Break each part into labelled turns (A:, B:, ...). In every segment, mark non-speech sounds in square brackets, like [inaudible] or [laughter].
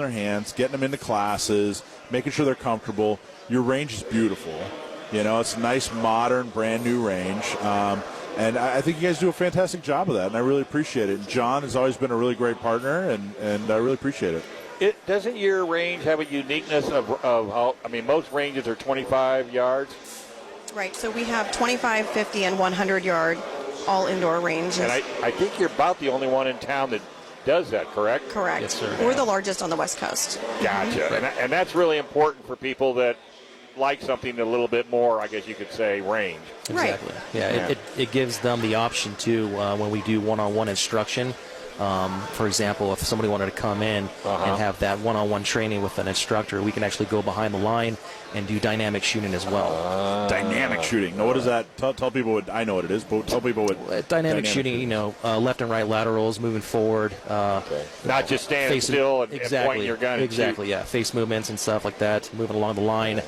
A: their hands, getting them into classes, making sure they're comfortable. Your range is beautiful. You know, it's a nice, modern, brand new range. Um, and I, I think you guys do a fantastic job of that, and I really appreciate it. John has always been a really great partner, and, and I really appreciate it.
B: It doesn't your range have a uniqueness of, of how? I mean, most ranges are 25 yards,
C: Right, so we have 25, 50, and 100 yard all indoor ranges.
B: and I, I think you're about the only one in town that does that. Correct.
C: Correct.
D: Yes, sir.
C: We're the largest on the West Coast.
B: Gotcha. And, that- and that's really important for people that like something a little bit more. I guess you could say range.
C: Right.
D: Exactly. Yeah, It, it, it gives them the option too uh, when we do one-on-one instruction. Um, for example, if somebody wanted to come in
B: Uh-huh.
D: and have that one-on-one training with an instructor, we can actually go behind the line and do dynamic shooting as well.
B: Uh-huh.
A: dynamic shooting. Now, what is that? Tell, tell people what I know what it is, but tell people what
D: Uh, dynamic, shooting, you know, uh, left and right laterals, moving forward, uh,
B: Not just standing
D: face
B: still and, and
D: exactly,
B: pointing your gun.
D: exactly, yeah, face movements and stuff like that, moving along the line.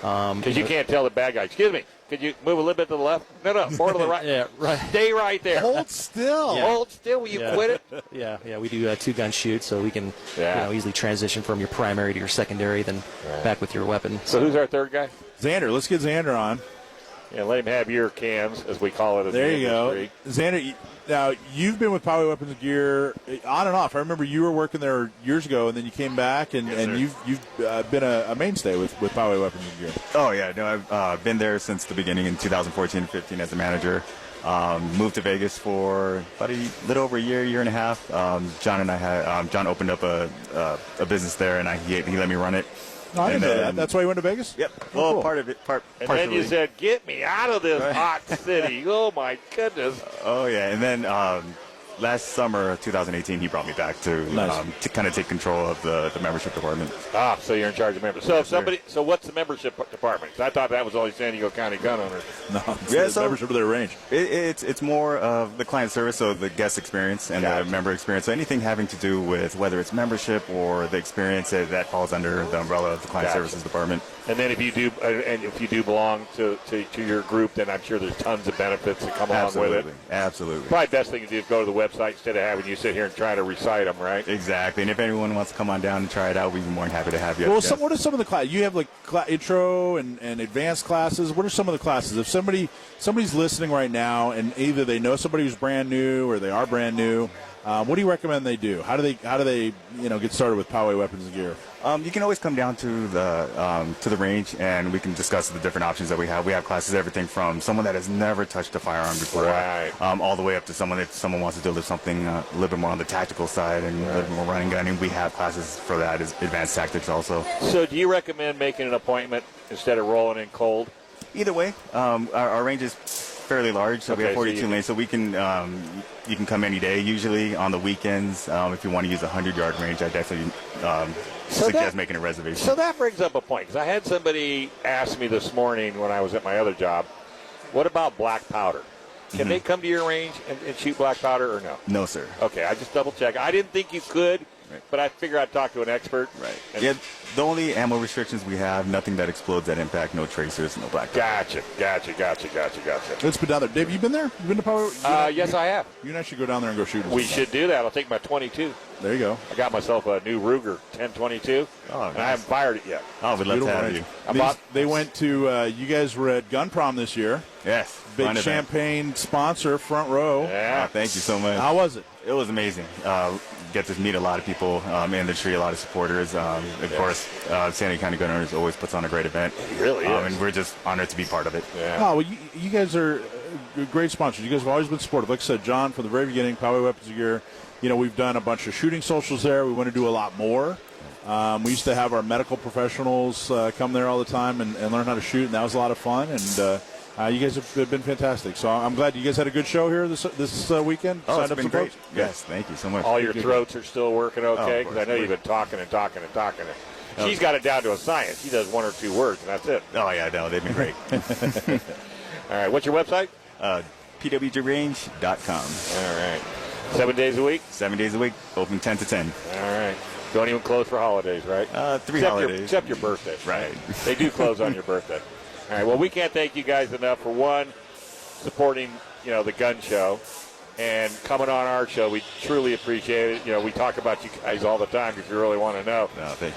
B: Because you can't tell the bad guy. Excuse me. Could you move a little bit to the left? No, no. More to the [laughs] right.
D: Yeah, right. [laughs]
B: Stay right there.
E: Hold still.
B: Hold still. Will you
D: Yeah.
B: quit it?
D: Yeah, yeah, we do uh, two gun shoot, so we can
B: Yeah.
D: you know, easily transition from your primary to your secondary, then back with your weapon.
B: So who's our third guy?
A: Xander. Let's get Xander on.
B: Yeah, let him have your cams, as we call it. In
A: There
B: the
A: you
B: industry.
A: go, Xander. you- Now you've been with Power Weapons Gear eh, on and off. I remember you were working there years ago, and then you came back, and, and you've you've uh, been a, a mainstay with with Power Weapons Gear.
F: Oh yeah, no, I've uh, been there since the beginning in 2014-15 as a manager. Um, moved to Vegas for about a little over a year, year and a half. Um, John and I had um, John opened up a uh, a business there, and I, he he let me run it.
A: No, Oh, I didn't
F: And
A: know
F: then-
A: that. uh, That's why you went to Vegas.
F: Yep.
A: Oh,
F: well,
A: cool.
F: part of it, part
B: And
F: partially.
B: then you said, "Get me out of this
F: [laughs]
B: hot city!" Oh my goodness!
F: oh yeah, and then um, last summer, of 2018, he brought me back to
A: Nice.
F: um, to kind of take control of the, the membership department.
B: Ah, so you're in charge of members. So if somebody, so what's the membership department? 'Cause I thought that was only San Diego County gun owners.
A: [laughs] No, it's
F: Yeah,
A: the
F: so-
A: membership of their range.
F: It, it's it's more of the client service, so the guest experience and
B: Gotcha.
F: the member experience. So anything having to do with whether it's membership or the experience that, that falls under the umbrella of the client
B: Gotcha.
F: services department.
B: And then if you do, uh, and if you do belong to, to, to your group, then I'm sure there's tons of benefits that come along with
F: Absolutely,
B: it.
F: absolutely,
B: Probably best thing to do is go to the website instead of having you sit here and try to recite them, right?
F: exactly. And if anyone wants to come on down and try it out, we'd be more than happy to have you. as
A: Well,
F: guests.
A: some, what are some of the class? You have like cla intro and, and advanced classes. What are some of the classes? If somebody somebody's listening right now, and either they know somebody who's brand new or they are brand new, um, what do you recommend they do? How do they how do they you know get started with Poway weapons and gear?
F: Um, you can always come down to the um, to the range, and we can discuss the different options that we have. We have classes, everything from someone that has never touched a firearm before,
B: Right.
F: um, all the way up to someone if someone wants to do something uh, a little bit more on the tactical side and a little bit more running gunning. We have classes for that, is advanced tactics also.
B: So do you recommend making an appointment instead of rolling in cold?
F: Either way, um, our, our range is fairly large, so we
B: Okay,
F: have
B: so
F: 42
B: you-
F: lanes, so we can um, you can come any day. Usually on the weekends, um, if you want to use a 100 yard range, I definitely um,
B: So
F: suggest
B: that-
F: making a reservation.
B: So that brings up a point because I had somebody ask me this morning when I was at my other job, "What about black powder? Can
F: Mm-hmm.
B: they come to your range and, and shoot black powder or no?"
F: no, sir.
B: Okay, I just double check. I didn't think you could,
F: Right.
B: but I figure I'd talk to an expert.
F: Right.
B: And-
F: Yeah, the only ammo restrictions we have, nothing that explodes at impact, no tracers, no black. dot.
B: Gotcha, gotcha, gotcha, gotcha, gotcha.
A: Let's been down there. Dave, you been there? You been to Poway? You,
B: Uh, yes, I have.
A: you and I should go down there and go shoot.
B: We should do that. I'll take my 22.
A: There you go.
B: I got myself a new Ruger 1022,
F: Oh,
B: and I
F: nice.
B: haven't fired it yet.
F: Oh, we'd love to
A: Beautiful
F: have
A: range.
F: you.
B: I
A: These-
B: bought-
A: they went to uh, you guys were at Gun Prom this year.
F: Yes.
A: Big
F: fun event.
A: champagne sponsor, front row.
F: Ah,
B: Yeah.
F: thank you so much.
A: How was it?
F: It was amazing. Uh, get to meet a lot of people um, in the tree, a lot of supporters. Um, of course, uh, San Diego County Gun Owners always puts on a great event.
B: It really
F: Um,
B: is.
F: and we're just honored to be part of it.
B: Yeah.
A: Oh, well, you, you guys are uh, great sponsors. You guys have always been supportive. Like I said, John, from the very beginning, Poway Weapons of Gear, you know, we've done a bunch of shooting socials there. We want to do a lot more. Um, we used to have our medical professionals uh, come there all the time and, and learn how to shoot, and that was a lot of fun. And uh, uh, you guys have, have been fantastic. So I'm glad you guys had a good show here this this uh, weekend.
F: Oh,
A: Signed
F: it's
A: up
F: been
A: some
F: great.
A: folks?
F: Yes, thank you so much.
B: All your throats are still working okay?
F: of
B: Because I know
F: course.
B: you've been talking and talking and talking. And she's got it down to a science. She does one or two words, and that's it.
F: Oh, yeah, no, they've
B: [laughs]
F: been great.
B: All right. What's your website?
F: uh, PWGrange.com.
B: All right. Seven days a week.
F: Seven days a week, open 10 to 10.
B: All right. Don't even close for holidays, right?
F: Uh, three
B: except
F: holidays.
B: Your, except your birthday.
F: Right.
B: They do close on your birthday. All right. Well, we can't thank you guys enough for one supporting, you know, the gun show, and coming on our show. We truly appreciate it. You know, we talk about you guys all the time if you really want to know.
F: No, thank you.